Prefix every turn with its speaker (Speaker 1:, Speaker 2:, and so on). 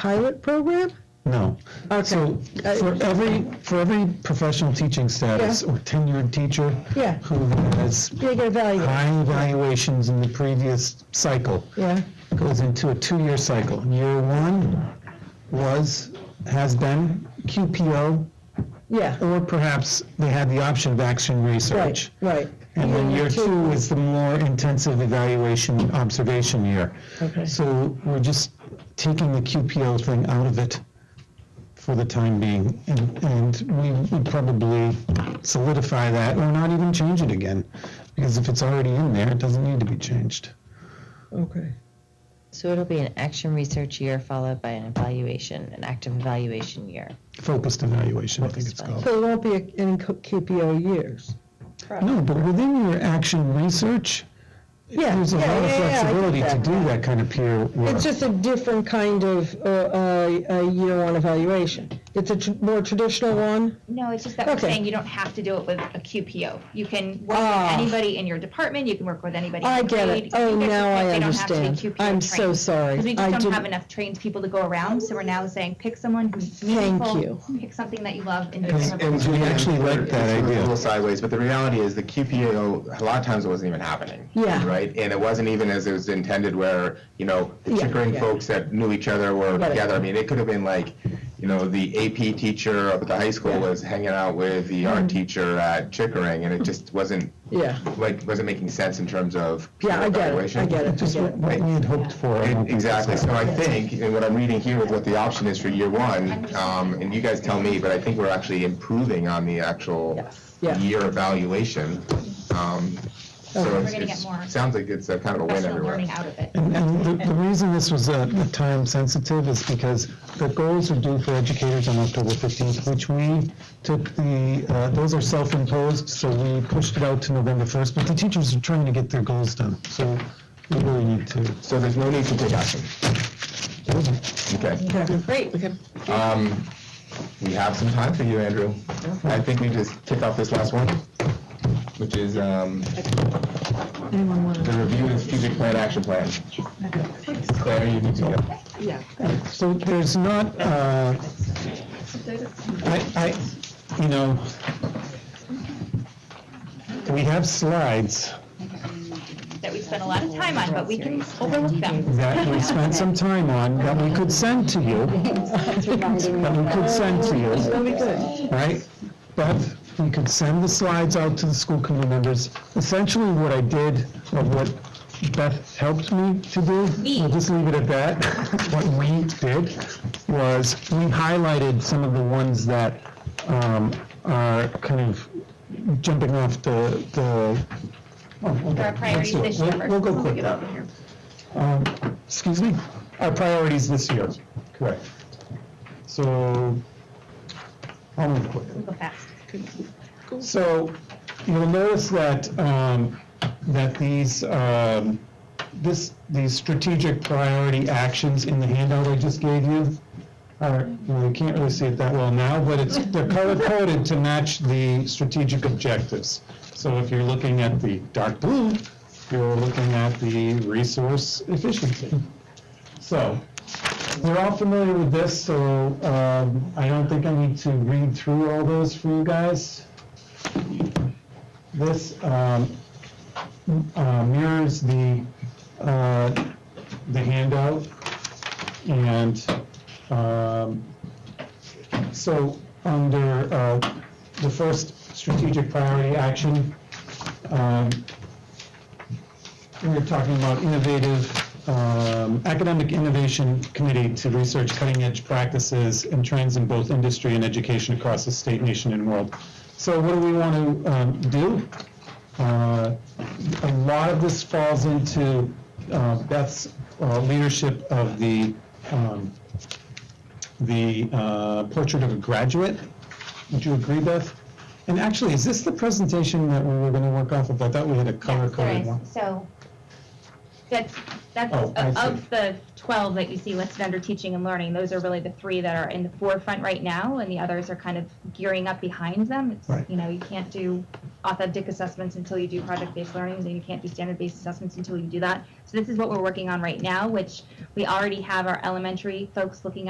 Speaker 1: pilot program?
Speaker 2: No.
Speaker 1: Okay. Uh,
Speaker 2: So for every, for every professional teaching status
Speaker 1: Yeah.
Speaker 2: or tenured teacher
Speaker 1: Yeah.
Speaker 2: who has
Speaker 1: You're gonna evaluate,
Speaker 2: high evaluations in the previous cycle
Speaker 1: yeah,
Speaker 2: goes into a two-year cycle. Year one was, has been QPO,
Speaker 1: yeah,
Speaker 2: or perhaps they had the option of action
Speaker 1: Oh, right,
Speaker 2: research.
Speaker 1: right.
Speaker 2: And then year two is the more intensive evaluation observation year.
Speaker 1: Okay.
Speaker 2: So we're just taking the QPL thing out of it for the time being, and, and we would probably solidify that or not even change it again. Because if it's already in there, it doesn't need to be changed.
Speaker 1: Okay.
Speaker 3: So it'll be an action research year followed by an evaluation, an active evaluation year.
Speaker 2: Focused evaluation, I think it's
Speaker 3: Focused
Speaker 2: called.
Speaker 1: So it won't be in QPO years?
Speaker 2: No, but within your action research,
Speaker 1: Yeah,
Speaker 2: there's a
Speaker 1: yeah,
Speaker 2: lot of
Speaker 1: yeah, yeah, I get
Speaker 2: flexibility to
Speaker 1: that.
Speaker 2: do that kind of peer work.
Speaker 1: It's just a different kind of, uh, uh, uh, year one evaluation. It's a tr- more traditional one?
Speaker 4: No, it's just that we're
Speaker 1: Okay.
Speaker 4: saying you don't have to do it with a QPO. You can work
Speaker 1: Ah.
Speaker 4: with anybody in your department, you can work with anybody. in
Speaker 1: I
Speaker 4: your
Speaker 1: get
Speaker 4: grade.
Speaker 1: it. Oh,
Speaker 4: You guys
Speaker 1: now
Speaker 4: just-
Speaker 1: I
Speaker 4: they don't have to be
Speaker 1: understand.
Speaker 4: QPO
Speaker 1: I'm so
Speaker 4: trained.
Speaker 1: sorry.
Speaker 4: 'Cause we
Speaker 1: I
Speaker 4: just don't have
Speaker 1: didn't-
Speaker 4: enough trained people to go around, so we're now saying pick someone who's
Speaker 1: Thank
Speaker 4: meaningful.
Speaker 1: you.
Speaker 4: Pick something that you love and do
Speaker 2: And-
Speaker 4: it.
Speaker 2: and- we actually like that
Speaker 5: It's
Speaker 2: idea.
Speaker 5: A little sideways, but the reality is the QPO, a lot of times it wasn't even happening.
Speaker 1: Yeah.
Speaker 5: Right? And it wasn't even as it was intended where, you know, the
Speaker 1: Yeah,
Speaker 5: Chickering
Speaker 1: yeah.
Speaker 5: folks that knew each other were
Speaker 1: Got it.
Speaker 5: together. I mean, it could have been like, you know, the AP teacher up at the high school was hanging out with the art teacher at Chickering, and it just wasn't,
Speaker 1: Mm-hmm. Yeah,
Speaker 5: like, wasn't making sense in terms of
Speaker 1: yeah, I get it,
Speaker 5: evaluation.
Speaker 1: I get it, I
Speaker 2: Just
Speaker 1: get
Speaker 2: what
Speaker 1: it.
Speaker 2: what we had hoped for. I don't think it's
Speaker 5: E- Exactly, so I think, and what I'm reading here with what the option is for year one, um, and you guys tell me, but I think we're actually improving on the actual
Speaker 1: Yeah.
Speaker 5: year evaluation. Um, So
Speaker 1: Okay.
Speaker 4: We're
Speaker 5: it's,
Speaker 4: gonna get more
Speaker 5: it's, sounds like it's a kind of a win
Speaker 4: Professional
Speaker 5: everywhere.
Speaker 4: learning out of it.
Speaker 2: And, and the, the reason this was uh, time sensitive is because the goals are due for educators on October 15th, which we took the, uh, those are self-imposed, so we pushed it out to November 1st, but the teachers are trying to get their goals done, so we really need to.
Speaker 5: So there's no need to take action. Okay,
Speaker 1: Great.
Speaker 5: um, we have some time for you, Andrew. I think we just kick off this last one, which is, um, the review of strategic plan action plan. Claire, you need to go.
Speaker 2: So there's not, uh, I, I, you know, we have slides
Speaker 4: That we spend a lot of time on, but we can overlook them.
Speaker 2: that we spent some time on that we could send to you. That we could send to you.
Speaker 1: That'll be good.
Speaker 2: right? But we could send the slides out to the school committee members. Essentially, what I did, or what Beth helped me to do, we'll just leave it at that. What we did was, we highlighted some of the ones that um, are kind of jumping off the, the. oh,
Speaker 4: There are priorities this year.
Speaker 2: We'll- We'll go quick.
Speaker 4: Get over here.
Speaker 2: Um, Excuse me? Our priorities this year. Correct. So, I'll move quick.
Speaker 4: Go fast.
Speaker 2: So you'll notice that, um, that these, um, this, these strategic priority actions in the handout I just gave you are, well, you can't really see it that well now, but it's, they're color coded to match the strategic objectives. So if you're looking at the dark blue, you're looking at the resource efficiency. So, we're all familiar with this, so, um, I don't think I need to read through all those for you guys this um, uh, mirrors the, uh, the handout. And um, so under uh, the first strategic priority action, um, we're talking about innovative, um, academic innovation committee to research cutting-edge practices and trends in both industry and education across the state, nation, and world. So what do we want to um, do? Uh, a lot of this falls into uh, Beth's uh, leadership of the um, the uh, portrait of a graduate. Would you agree, Beth? And actually, is this the presentation that we were going to work off of? I thought we had a color
Speaker 4: Yes, there
Speaker 2: coded
Speaker 4: is.
Speaker 2: one.
Speaker 4: So, that's, That's
Speaker 2: Oh, I
Speaker 4: of-
Speaker 2: see.
Speaker 4: of the 12 that you see listed under teaching and learning, those are really the three that are in the forefront right now, and the others are kind of gearing up behind them. It's,
Speaker 2: Right.
Speaker 4: You know, you can't do authentic assessments until you do project-based learning, and you can't do standard-based assessments until you do that. So this is what we're working on right now, which we already have our elementary folks looking at.